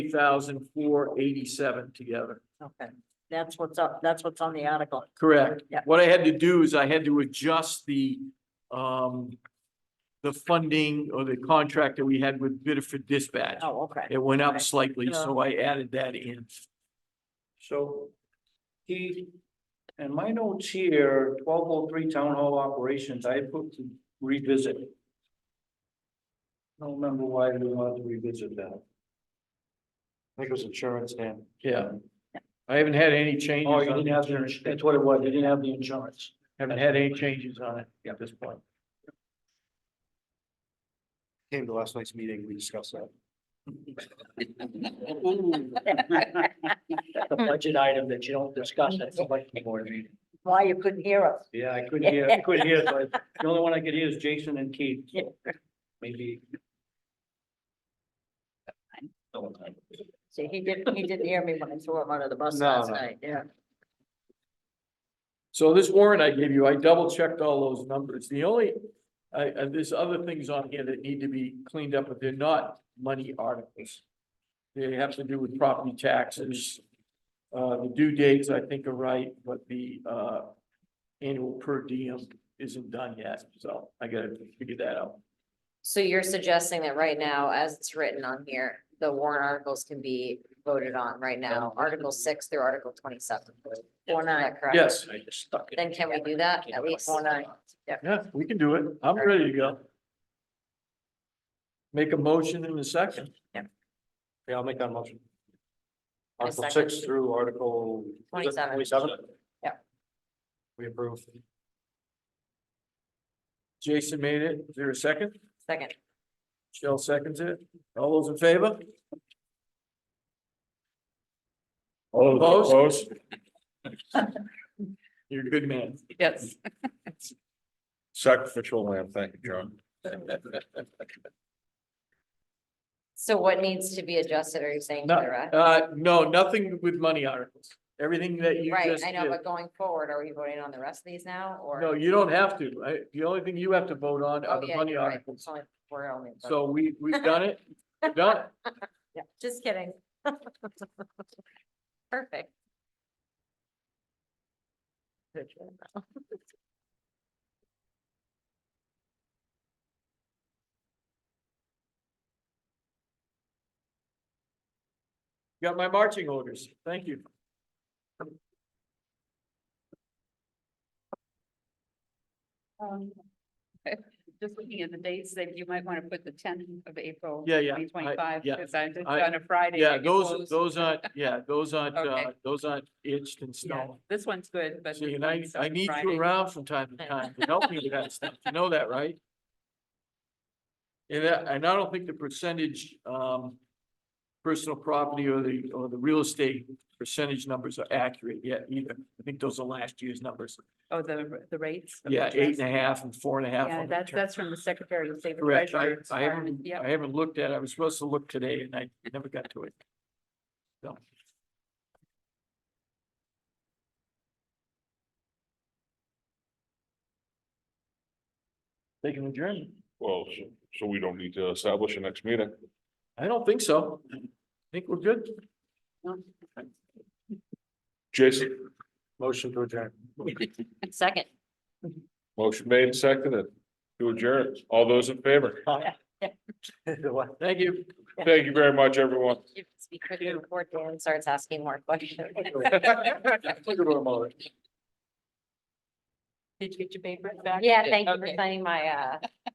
thousand four eighty-seven together. Okay, that's what's up, that's what's on the article. Correct. Yeah. What I had to do is I had to adjust the, um, the funding or the contract that we had with Biddeford Dispatch. Oh, okay. It went up Okay. slightly, so I added that in. So he, and my notes here, twelve oh three town hall operations, I put to revisit. I don't remember why we wanted to revisit that. I think it was insurance then. Um, Yeah. I haven't had any changes Oh, you on didn't have, the it. ins- that's what it was, you didn't have the insurance. Haven't had any changes on it at this point. Came to last night's meeting, we discussed that. The budget item that you don't discuss at the budget board meeting. Why you couldn't hear us? Yeah, I couldn't hear, I couldn't hear, so I- the only one I could hear is Jason and Keith, so maybe. See, he didn't, he didn't hear me when I threw him under the bus No, last no. night, yeah. So this warrant I gave you, I double checked all those numbers. The only, I, I, there's other things on here that need to be cleaned up, but they're not money articles. They have to do with property taxes. Uh, the due dates I think are right, but the, uh, annual per diem isn't done yet, so I gotta figure that out. So you're suggesting that right now, as it's written on here, the warrant articles can be voted on right now, Article six through Article twenty-seven. Four nine, correct? Yes, I just stuck it. Then can we do that at least? Four nine, yeah, we can do it. I'm ready to go. Make a motion in a second. Yeah, I'll make that motion. I Article second. six through article. is it 27. Yeah. We approve. Jason made it. Is there a second? Second, Shell seconds it. All those in favor? All Opposed? those opposed? You're a good man. yes. Sacrificial lamb, thank you, John. So what needs to be adjusted, are you saying to No, the rest? Uh, no, nothing with money articles. Everything that you Right, just I know, did. but going forward, are we voting on the rest of these now, or? No, you don't have to. I, the only thing you have to vote on Oh, are the yeah, money you're right. articles. It's only- We're only. So we, we've done it, We've done it. Yeah, just kidding. Perfect. Got my marching orders. Thank you. Um, Just looking at the dates, that you might want to put the tenth of April. Yeah, yeah, I- Twenty twenty-five, yeah. because I just I- on a Friday. I Yeah, get those, closed. those aren't, yeah, those aren't, Okay. uh, those aren't itched in Yeah, stone. This one's good, but. See, this and I, one's on I need Friday. you around from time to time to help me with that stuff. You know that, right? And I, and I don't think the percentage, um, personal property or the, or the real estate percentage numbers are accurate yet either. I think those are last year's numbers. Oh, the, the rates. of Yeah, eight interest. and a half and four and a half. Yeah, on the that's, return. that's from the Secretary of State. Correct. I, Treasurer's I Department. haven't, Yep. I haven't looked at, it. I was supposed to look today and I never got to it. So. They can adjourn. Well, so, so we don't need to establish a next meeting. I don't think so. I think we're good. Jason, Motion to adjourn. Second. motion made and seconded to adjourn. All those in favor? Thank you. Thank you very much, everyone. You can Speak quickly before Dan starts asking more questions. Did you get your papers back? Yeah, thank you for Okay. signing my, uh,